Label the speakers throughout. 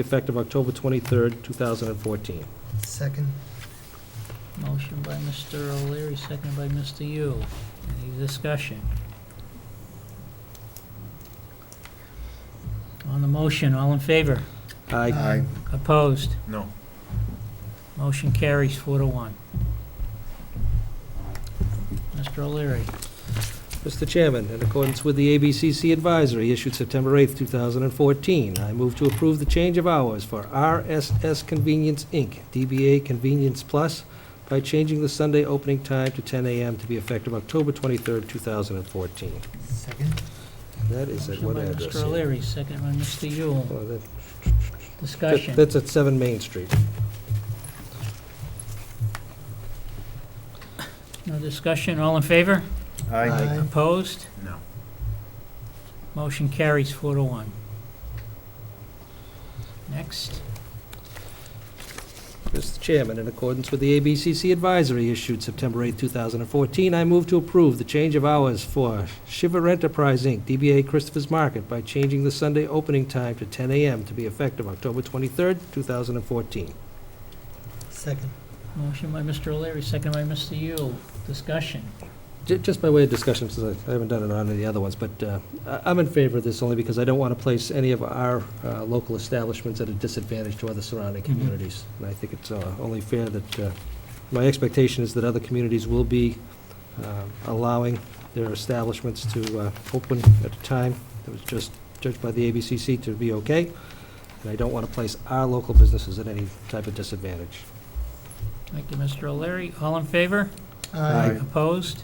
Speaker 1: effective October 23rd, 2014.
Speaker 2: Second.
Speaker 3: Motion by Mr. O'Leary, seconded by Mr. Yule. Any discussion? On the motion, all in favor?
Speaker 1: Aye.
Speaker 3: Opposed?
Speaker 4: No.
Speaker 3: Motion carries four to one. Mr. O'Leary,
Speaker 1: Mr. Chairman, in accordance with the ABCC advisory issued September 8th, 2014, I move to approve the change of hours for RSS Convenience, Inc., DBA Convenience Plus, by changing the Sunday opening time to 10 a.m. to be effective October 23rd, 2014.
Speaker 2: Second.
Speaker 1: And That is at
Speaker 3: motion
Speaker 1: what
Speaker 3: by
Speaker 1: address?
Speaker 3: Mr. O'Leary, seconded by Mr. Yule.
Speaker 1: Oh, that- that-
Speaker 3: Discussion.
Speaker 1: That's at 7 Main Street.
Speaker 3: No discussion, all in favor?
Speaker 2: Aye.
Speaker 3: Opposed?
Speaker 4: No.
Speaker 3: Motion carries four to one. Next.
Speaker 1: Mr. Chairman, in accordance with the ABCC advisory issued September 8, 2014, I move to approve the change of hours for Shiver Enterprise, Inc., DBA Christopher's Market, by changing the Sunday opening time to 10 a.m. to be effective October 23, 2014.
Speaker 2: Second.
Speaker 3: Motion by Mr. O'Leary, second by Mr. Yule. Discussion.
Speaker 1: Ju- Just by way of discussion, since I- I haven't done it on any of the other ones, but uh, I- I'm in favor of this only because I don't want to place any of our uh, local establishments at a disadvantage to other surrounding
Speaker 3: Mhm.
Speaker 1: communities. And I think it's uh, only fair that, uh, my expectation is that other communities will be um, allowing their establishments to uh, open at a time that was just judged by the ABCC to be okay, and I don't want to place our local businesses at any type of disadvantage.
Speaker 3: Thank you, Mr. O'Leary. All in favor?
Speaker 1: Aye.
Speaker 3: Opposed?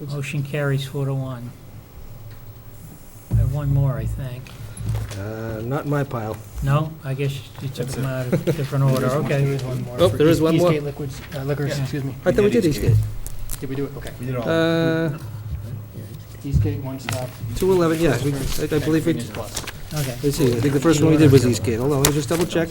Speaker 1: No.
Speaker 3: Motion carries four to one. I have one more, I think.
Speaker 1: Uh, Not in my pile.
Speaker 3: No? I guess you took
Speaker 4: That's
Speaker 3: them out of different order. Okay.
Speaker 2: is one more.
Speaker 1: Oh, there is one more.
Speaker 2: Eastgate Liquids, uh, Liquors,
Speaker 3: Yeah.
Speaker 2: excuse me.
Speaker 1: I thought we did Eastgate.
Speaker 2: Did we do it? Okay.
Speaker 4: We did all.
Speaker 1: Uh,
Speaker 2: Eastgate, One Stop.
Speaker 1: 211, yeah, we- I I believe we,
Speaker 2: Convenience Plus.
Speaker 3: Okay.
Speaker 1: let's see, I think the first one we did was Eastgate, hold on, let me just double check.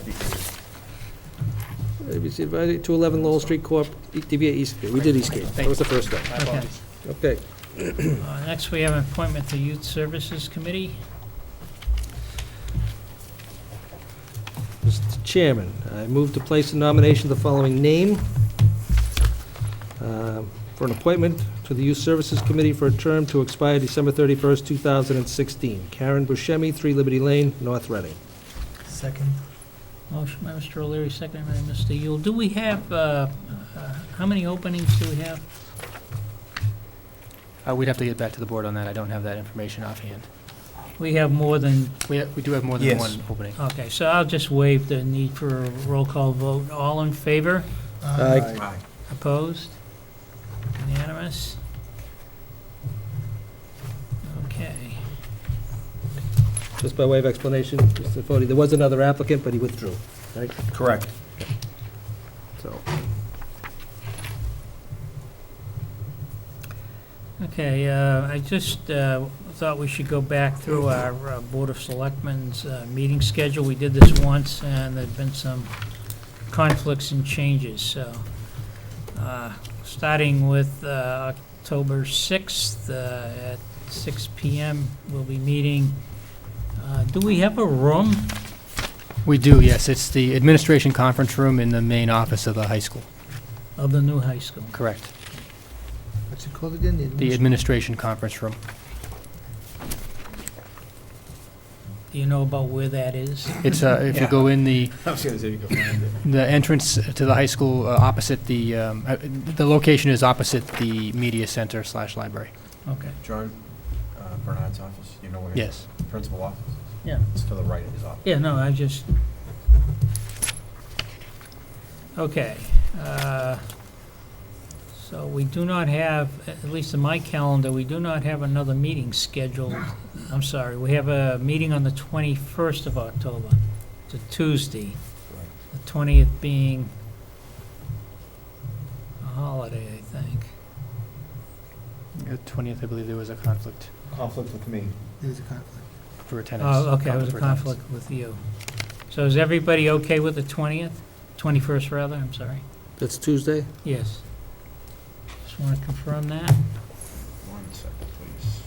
Speaker 1: ABC Advisory, 211 Lowell Street Corp., E- DBA Eastgate, we did Eastgate, that was the first one,
Speaker 2: My
Speaker 3: Okay.
Speaker 2: apologies.
Speaker 1: okay.
Speaker 3: Uh, Next, we have an appointment to Youth Services Committee.
Speaker 1: Mr. Chairman, I move to place in nomination the following name um, for an appointment to the Youth Services Committee for a term to expire December 31st, 2016. Karen Buscemi, 3 Liberty Lane, North Reading.
Speaker 2: Second.
Speaker 3: Motion by Mr. O'Leary, second by Mr. Yule. Do we have, uh, uh, how many openings do we have?
Speaker 5: Uh, We'd have to get back to the board on that. I don't have that information offhand.
Speaker 3: We have more than
Speaker 5: We ha- we do have more than
Speaker 4: Yes.
Speaker 5: one opening.
Speaker 3: Okay, so I'll just waive the need for a roll call vote. All in favor?
Speaker 1: Aye.
Speaker 4: Aye.
Speaker 3: Opposed? Unanimous? Okay.
Speaker 1: Just by way of explanation, Mr. Fode, there was another applicant, but he withdrew, right?
Speaker 4: Correct.
Speaker 1: So,
Speaker 3: Okay, uh, I just uh, thought we should go back through our uh, Board of Selectmen's uh, meeting schedule. We did this once, and there've been some conflicts and changes, so. uh, Starting with uh, October 6th uh, at 6 PM, we'll be meeting. Uh, Do we have a room?
Speaker 5: We do, yes. It's the administration conference room in the main office of the high school.
Speaker 3: Of the new high school.
Speaker 5: Correct.
Speaker 2: What's it called again?
Speaker 5: The administration conference room.
Speaker 3: Do you know about where that is?
Speaker 5: It's, uh, if you
Speaker 4: Yeah.
Speaker 5: go in the,
Speaker 4: I was gonna say you could find it.
Speaker 5: the entrance to the high school uh, opposite the, um, uh, the location is opposite the media center slash library.
Speaker 3: Okay.
Speaker 4: John uh, Bernard's office, you know where his
Speaker 5: Yes.
Speaker 4: principal office is?
Speaker 3: Yeah.
Speaker 4: It's to the right of his office.
Speaker 3: Yeah, no, I just... Okay. uh, So we do not have, at least in my calendar, we do not have another meeting scheduled. I'm sorry, we have a meeting on the 21st of October. It's a Tuesday. The 20th being a holiday, I think.
Speaker 5: The 20th, Uh, I believe there was a conflict
Speaker 4: Conflict with me.
Speaker 2: There's a conflict.
Speaker 5: for attendance.
Speaker 3: Oh, okay, it was a
Speaker 5: for attendance.
Speaker 3: conflict with you. So is everybody okay with the 20th? 21st, rather, I'm sorry.
Speaker 1: that's Tuesday?
Speaker 3: Yes. Just want to confirm that.
Speaker 4: One second, please.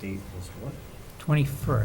Speaker 4: The date was what?
Speaker 3: 21st.